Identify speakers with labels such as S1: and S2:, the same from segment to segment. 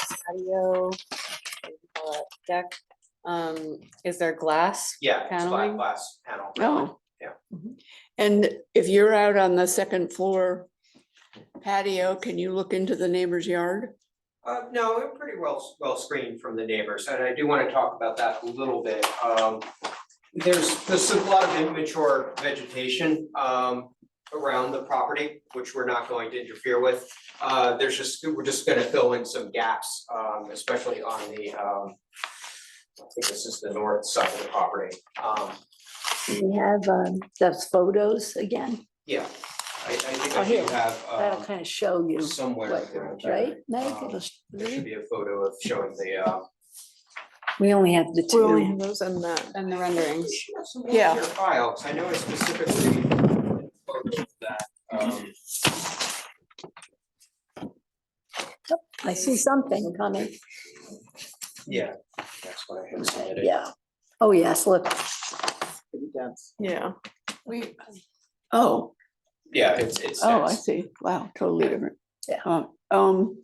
S1: patio uh, deck. Um, is there glass?
S2: Yeah, it's black
S1: Paneling?
S2: glass panel.
S3: Oh.
S2: Yeah.
S3: And if you're out on the second floor patio, can you look into the neighbor's yard?
S2: Uh, no, we're pretty well, well screened from the neighbors, and I do wanna talk about that a little bit, um. There's, there's a lot of immature vegetation, um, around the property, which we're not going to interfere with. Uh, there's just, we're just gonna fill in some gaps, um, especially on the, um. I think this is the north side of the property, um,
S4: We have um, those photos again.
S2: yeah, I, I think
S4: Oh,
S2: I
S4: here.
S2: do have,
S4: That'll
S2: um,
S4: kind of show you,
S2: somewhere.
S4: what-
S2: around there.
S4: right? Meg?
S2: Um,
S4: It'll sh-
S2: There should be a photo of showing the, uh,
S4: We only have the
S5: We only
S4: two.
S5: have those in that.
S1: And the renderings?
S2: She has some
S3: Yeah.
S2: in your file, 'cause I know it's specifically. photo of That, um,
S4: I see something coming.
S2: yeah, that's what I had submitted.
S4: Yeah. Oh, yes, look.
S5: Yeah.
S3: We. Oh,
S2: Yeah, it's, it's,
S3: oh, I
S2: it's-
S3: see. Wow, totally different.
S4: Yeah.
S3: Oh, Um,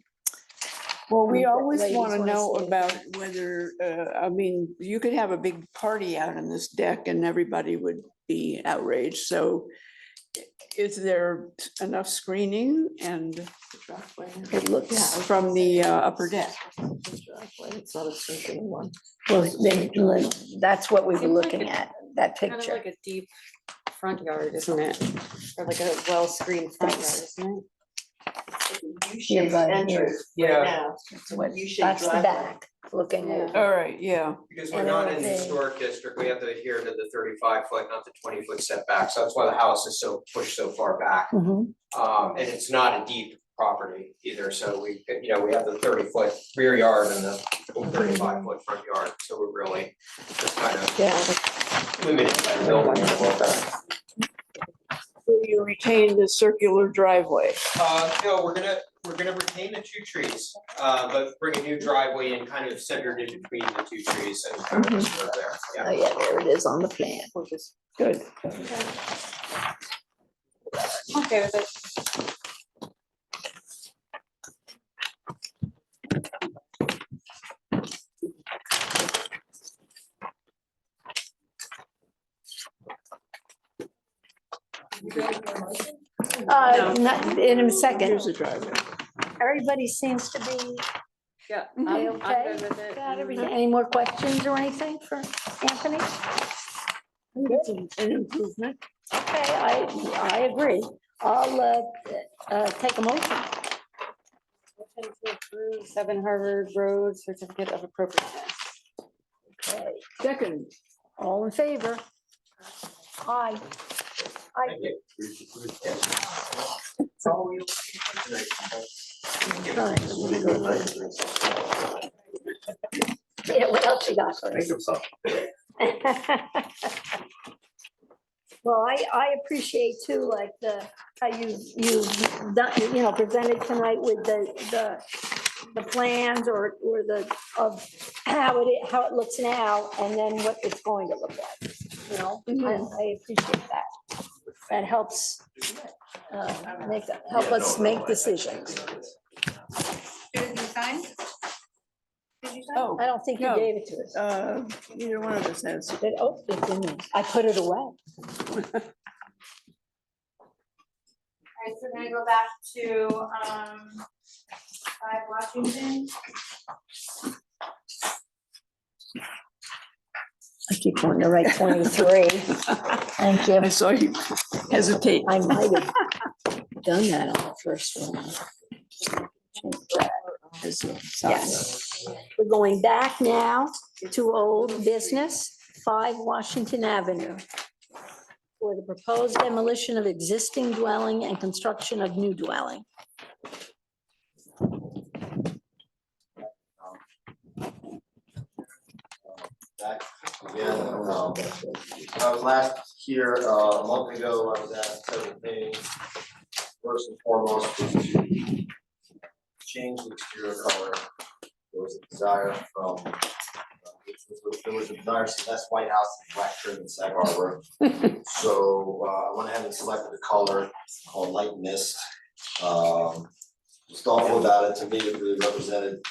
S3: well, we
S4: Um,
S3: always
S4: ladies
S3: want to
S4: wanna
S3: know
S4: see it.
S3: about whether, uh, I mean, you could have a big party out on this deck and everybody would be outraged. So is there enough screening and
S4: It looks,
S3: from the uh, upper deck?
S5: It's not a sinking one.
S4: well, then, look, that's what we were
S1: Seems like
S4: looking
S1: it-
S4: at, that
S1: Kind of
S4: picture.
S1: like a deep front yard, isn't it? Or like a well-screened front yard, isn't it?
S4: Here by here.
S2: yeah,
S4: That's what- that's the back, looking
S1: Yeah.
S4: over.
S3: All right, yeah.
S2: because we're
S4: And
S2: not
S4: all
S2: in the
S4: the-
S2: historic district, we have to adhere to the thirty-five foot, not the twenty foot setback, so that's why the house is so pushed so far back.
S4: Mhm.
S3: Mm-hmm.
S2: Um, and it's not a deep property either, so we, you know, we have the thirty foot rear yard and the
S3: Mm-hmm.
S2: thirty-five foot front yard, so we're really just kind of
S5: Yeah.
S2: limited by the building a little bit.
S3: So You retain the circular driveway.
S2: Uh, no, we're gonna, we're gonna retain the two trees, uh, but bring a new driveway and kind of centered in between the two trees and kind of just go there, yeah.
S4: Oh, yeah, there it is on the plan.
S3: Good.
S1: Okay, with it.
S4: Uh, not, in a second,
S3: Here's the driveway.
S4: everybody seems to be,
S1: Yeah.
S3: Mhm.
S1: I'm- I'm
S4: Okay,
S1: good with it. Mhm.
S4: got everything. Any more questions or anything for Anthony?
S3: It's an an improvement.
S4: Okay, I, I agree. I'll, uh, uh, take a motion.
S1: Motion to approve Seven Harvard Road Certificate of Appropriateness.
S4: Okay,
S3: Second,
S4: All in favor? Aye.
S2: Thank you.
S4: Yeah, what else you got for us? Well, I, I appreciate too, like the, how you, you've done, you know, presented tonight with the, the, the plans or, or the, of how it, how it looks now and then what it's going to look like, you know? I, I appreciate that. That helps, uh, make, help us make decisions.
S3: oh,
S4: I don't think you
S3: No.
S4: gave it to us.
S3: uh, either one of us has.
S4: It, oh, it didn't. I put it away.
S6: All right, so we're gonna go back to, um, five Washington.
S4: I keep wanting to write twenty-three. Thank you.
S3: I saw you hesitate.
S4: I might have done that on the first one. Yes. We're going back now to old business, five Washington Avenue. For the proposed demolition of existing dwelling and construction of new dwelling.
S7: back again. um, I was last here uh, a month ago, I was asked several things. First and foremost was to change the exterior color. There was a desire from, uh, which was- there was a desire, so that's White House and Black trim in Sag Harbor. So uh, I went ahead and selected a color called light mist. Um, Was thoughtful about it, to me, it really represented